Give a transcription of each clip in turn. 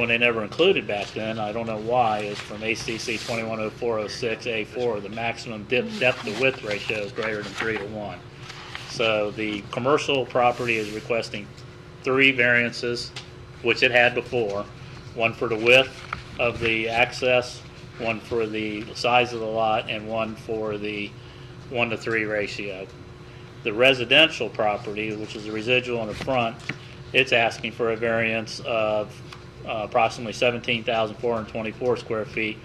When they never included back then, I don't know why, is from ACC 210406A4, the maximum dip- depth to width ratio is greater than 3 to 1. So the commercial property is requesting three variances, which it had before. One for the width of the access, one for the size of the lot, and one for the 1 to 3 ratio. The residential property, which is the residual in the front, it's asking for a variance of uh, approximately 17,424 square feet,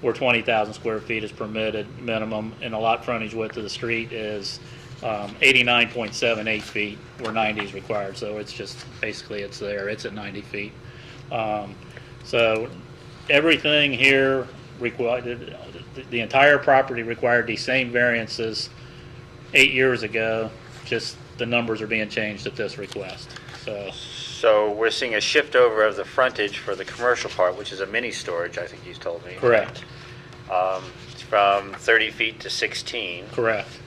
where 20,000 square feet is permitted minimum, and the lot frontage width of the street is um, 89.78 feet, where 90 is required, so it's just, basically, it's there, it's at 90 feet. Um, So everything here required, the entire property required these same variances eight years ago, just the numbers are being changed at this request. So, So we're seeing a shift over of the frontage for the commercial part, which is a mini storage, I think you told me. correct, Um, it's From 30 feet to 16. correct.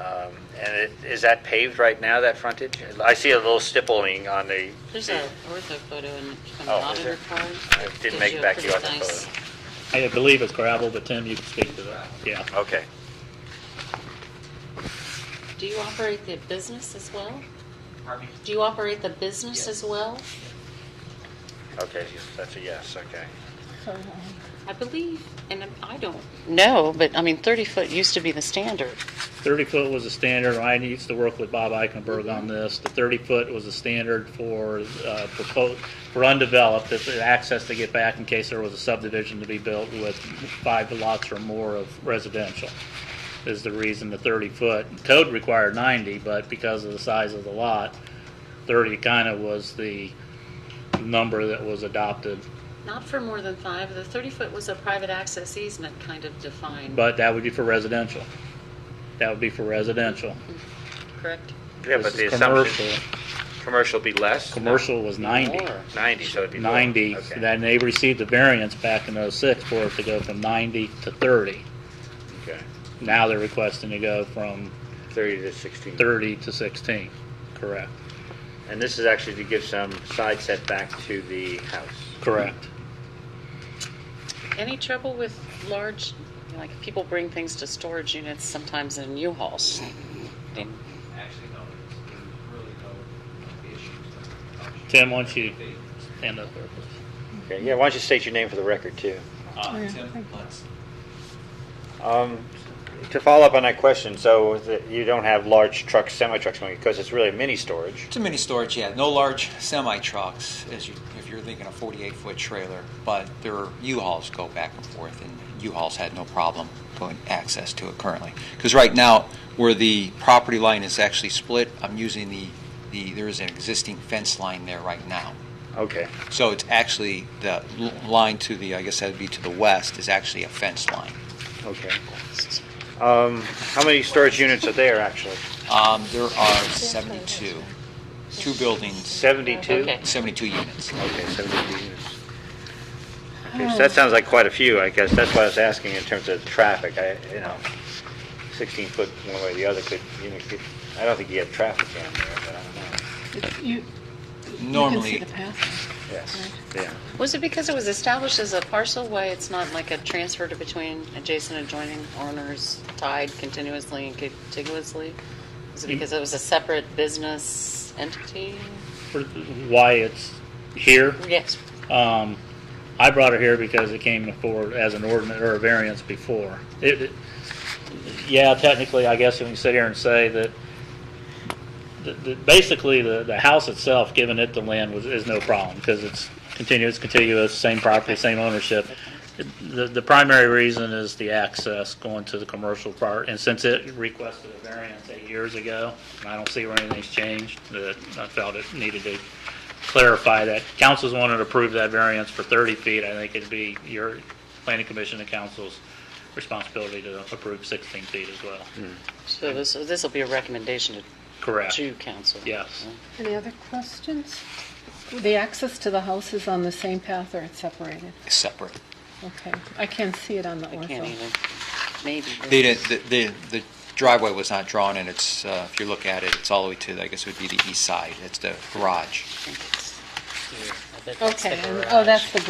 Um, And it- is that paved right now, that frontage? I see a little stippling on the, There's a ortho photo in from the Oh, is audit there? report. I Gives didn't make you a it back to you on pretty the nice- photo. I believe it's gravel, but Tim, you can speak to that. Yeah. Okay. Do you operate the business as well? Pardon me? Do you operate the business Yes. as well? Okay, yes, that's a yes, okay. I believe, and I don't. know, but I mean, 30 foot used to be the standard. 30 foot was a standard. I used to work with Bob Eichenberg on this. The 30 foot was a standard for uh, proposed, for undeveloped, if the access to get back in case there was a subdivision to be built with five lots or more of residential, is the reason the 30 foot. Code required 90, but because of the size of the lot, 30 kind of was the number that was adopted. Not for more than five. The 30 foot was a private access easement kind of defined, But that would be for residential. That would be for residential. correct? Yeah, This but the is assumption, commercial. commercial be less? Commercial was 90. More. 90, so it'd be more. 90, Okay. then they received the variance back in '06 for it to go from 90 to 30. Okay. Now they're requesting to go from 30 to 16. 30 to 16, correct? And this is actually to give some side setback to the house. Correct. Any trouble with large, like people bring things to storage units sometimes in U-Hauls? Actually, no, there's there's really no issues. Tim, why don't you stand up there, please? Okay, yeah, why don't you state your name for the record, too? Uh, Tim Lutz. Um, To follow up on that question, so that you don't have large trucks, semi-trucks, because it's really a mini storage. It's a mini storage, yeah. No large semi trucks, as you, if you're thinking a 48 foot trailer, but there are U-Hauls go back and forth, and U-Hauls had no problem going access to it currently. Because right now, where the property line is actually split, I'm using the, the there is an existing fence line there right now. Okay. So it's actually the l- line to the, I guess that'd be to the west, is actually a fence line. Okay. Um, How many storage units are there, actually? Um, there are 72, two buildings, 72? Okay. 72 units. Okay, 72 units. Okay, so that sounds like quite a few, I guess. That's why I was asking in terms of traffic. I, you know, 16 foot one way or the other could, you know, could- I don't think you have traffic down there, but I don't know. You, you can see Normally, the path. Yes, yeah. Was it because it was established as a parcel way, it's not like a transfer to between adjacent adjoining owners tied continuously and contiguously? Was Mm. it because it was a separate business entity? For Why it's here? Yes. Um, I brought it here because it came forward as an ordinance or a variance before. It, it- yeah, technically, I guess we can sit here and say that, that- that basically, the, the house itself, giving it the land was, is no problem, because it's continuous, contiguous, same property, same ownership. The, the primary reason is the access going to the commercial part, and since it requested a variance eight years ago, and I don't see where anything's changed, that I felt it needed to clarify that. Council's wanted to approve that variance for 30 feet, I think it'd be your planning commission and council's responsibility to approve 16 feet as well. So this, this will be a recommendation to, Correct. to council? Yes. Any other questions? The access to the house is on the same path or it's separated? separate. Okay, I can see it on the I can't ortho. even, maybe. They didn't, the, the, the driveway was not drawn, and it's, uh, if you look at it, it's all the way to, I guess it would be the east side, it's the garage. I bet that's the Okay, and- garage. oh, that's the